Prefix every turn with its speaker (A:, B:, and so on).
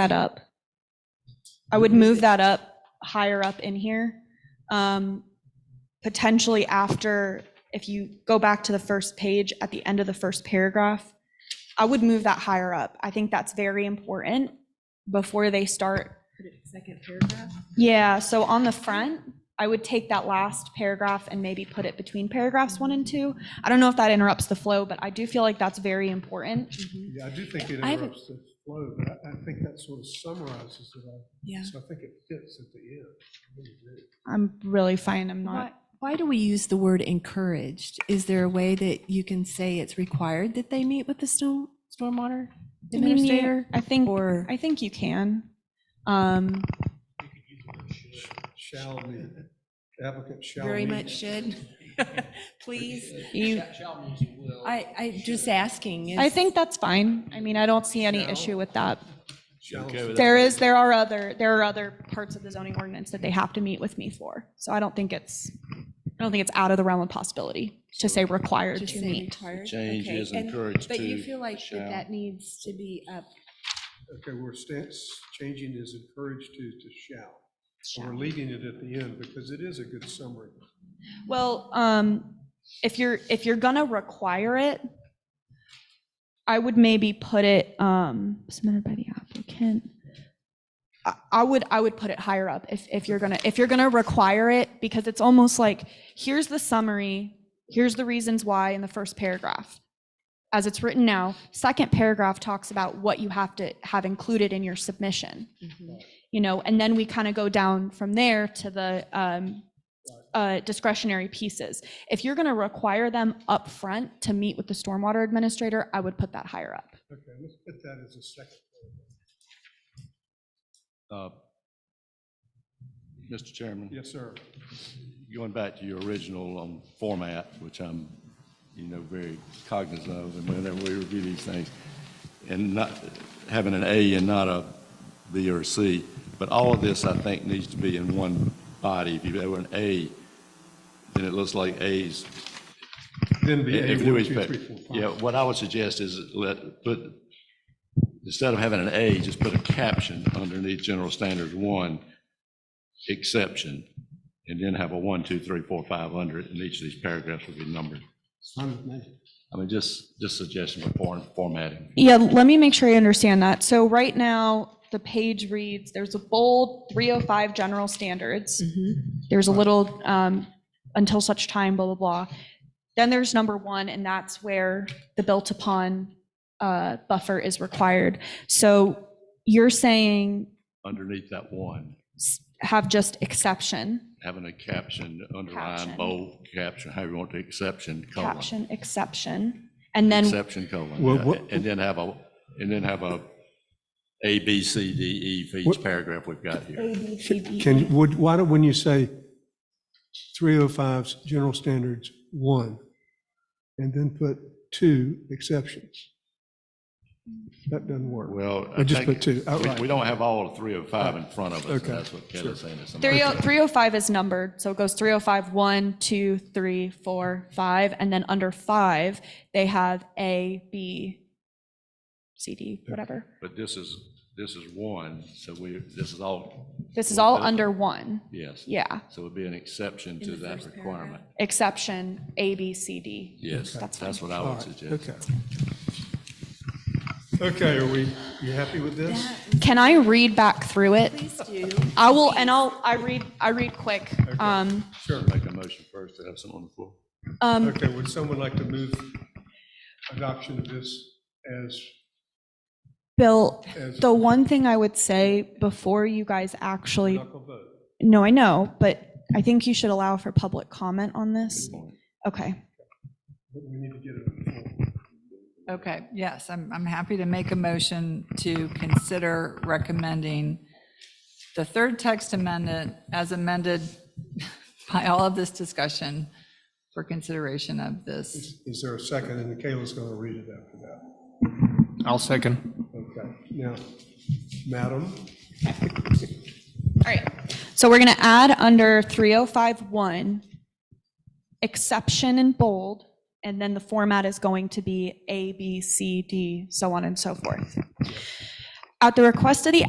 A: that up. I would move that up higher up in here. Um, potentially after, if you go back to the first page at the end of the first paragraph, I would move that higher up. I think that's very important before they start.
B: Second paragraph?
A: Yeah, so on the front, I would take that last paragraph and maybe put it between paragraphs one and two. I don't know if that interrupts the flow, but I do feel like that's very important.
C: Yeah, I do think it
B: I have a-
C: interrupts the flow, but I, I think that sort of summarizes it all.
B: Yeah.
C: So I think it fits at the end. I really do.
A: I'm really fine. I'm
B: Why,
A: not.
B: why do we use the word encouraged? Is there a way that you can say it's required that they meet with the storm, stormwater
A: I mean, you-
B: administrator?
A: I think.
B: Or,
A: I think you can. Um,
C: Shall meet, applicant shall meet.
B: very much should, please?
A: you,
B: I, I just asking.
A: I
B: is-
A: think that's fine. I mean, I don't see any issue with that.
C: Shall
D: Okay with that?
A: There is, there are other, there are other parts of the zoning ordinance that they have to meet with me for. So I don't think it's, I don't think it's out of the realm of possibility to say required
B: Just
A: to
B: say
A: meet.
B: retired?
D: Change
B: Okay,
D: is
B: and-
D: encouraged
B: But you
D: to
B: feel like that
D: shall.
B: that needs to be up.
C: Okay, we're stance, changing is encouraged to, to shall. So We're leaving it at the end because it is a good summary.
A: Well, um, if you're, if you're gonna require it, I would maybe put it, um, submitted by the applicant. I, I would, I would put it higher up if, if you're gonna, if you're gonna require it, because it's almost like, here's the summary, here's the reasons why in the first paragraph. As it's written now, second paragraph talks about what you have to have included in your submission you know, and then we kind of go down from there to the um, uh, discretionary pieces. If you're going to require them up front to meet with the stormwater administrator, I would put that higher up.
C: Okay, let's put that as a second. paragraph.
D: Uh, Mr. Chairman,
C: Yes, sir.
D: going back to your original um, format, which I'm, you know, very cognizant of, and whenever we review these things, and not, having an A and not a B or a C, but all of this, I think, needs to be in one body. If you have an A, then it looks like A's
C: Then be A,
D: If
C: one,
D: you
C: two,
D: expect,
C: three, four,
D: yeah,
C: five.
D: what I would suggest is let, put, instead of having an A, just put a caption underneath general standards one, exception, and then have a one, two, three, four, five under it, and each of these paragraphs would be numbered.
C: Fine with me.
D: I mean, just, just suggestion for form- formatting.
A: Yeah, let me make sure I understand that. So right now, the page reads, there's a bold 305 general standards. There's a little um, until such time, blah, blah, blah. Then there's number one, and that's where the built upon uh, buffer is required. So you're saying
D: Underneath that one,
A: s- have just exception,
D: having a caption,
A: Caption.
D: underline, bold, caption, however you want the exception, colon.
A: caption, exception, and then,
D: Exception, colon.
C: Well,
D: yeah,
C: what-
D: And then have a, and then have a A, B, C, D, E for each
C: What-
D: paragraph we've got here.
C: Can, would, why don't, when you say 305's general standards, one, and then put two exceptions? That doesn't work.
D: Well. I
C: Or just
D: think
C: put two,
D: we-
C: outright.
D: We don't have all three or five in front of us,
C: Okay,
D: and that's what Kelly's saying. is some-
A: 30 305 is numbered, so it goes 305, 1, 2, 3, 4, 5, and then under 5, they have A, B, C, D, whatever.
D: But this is, this is one, so we, this is all,
A: This is all under 1,
D: yes.
A: yeah,
D: So it'd be an exception to that requirement.
A: exception, A, B, C, D.
D: Yes,
A: That's fine.
D: that's what I
C: All
D: would
C: right,
D: suggest.
C: Okay. Okay, are we, you happy with this?
A: Can I read back through it?
B: Please do.
A: I will, and I'll, I read, I read quick. Um,
C: Sure.
D: Make a motion first to have someone on the floor.
A: um,
C: Okay, would someone like to move adoption of this as,
A: Bill,
C: as
A: The one thing I would say before you guys actually,
C: knuckle vote?
A: no, I know, but I think you should allow for public comment on this. Okay.
C: But we need to get it.
E: Okay, yes, I'm, I'm happy to make a motion to consider recommending the third text amendment as amended by all of this discussion for consideration of this.
C: Is there a second? And Kayla's going to read it after that.
F: I'll second.
C: Okay, now, madam,
A: All right. So we're going to add under 3051, exception in bold, and then the format is going to be A, B, C, D, so on and so forth. At the request of the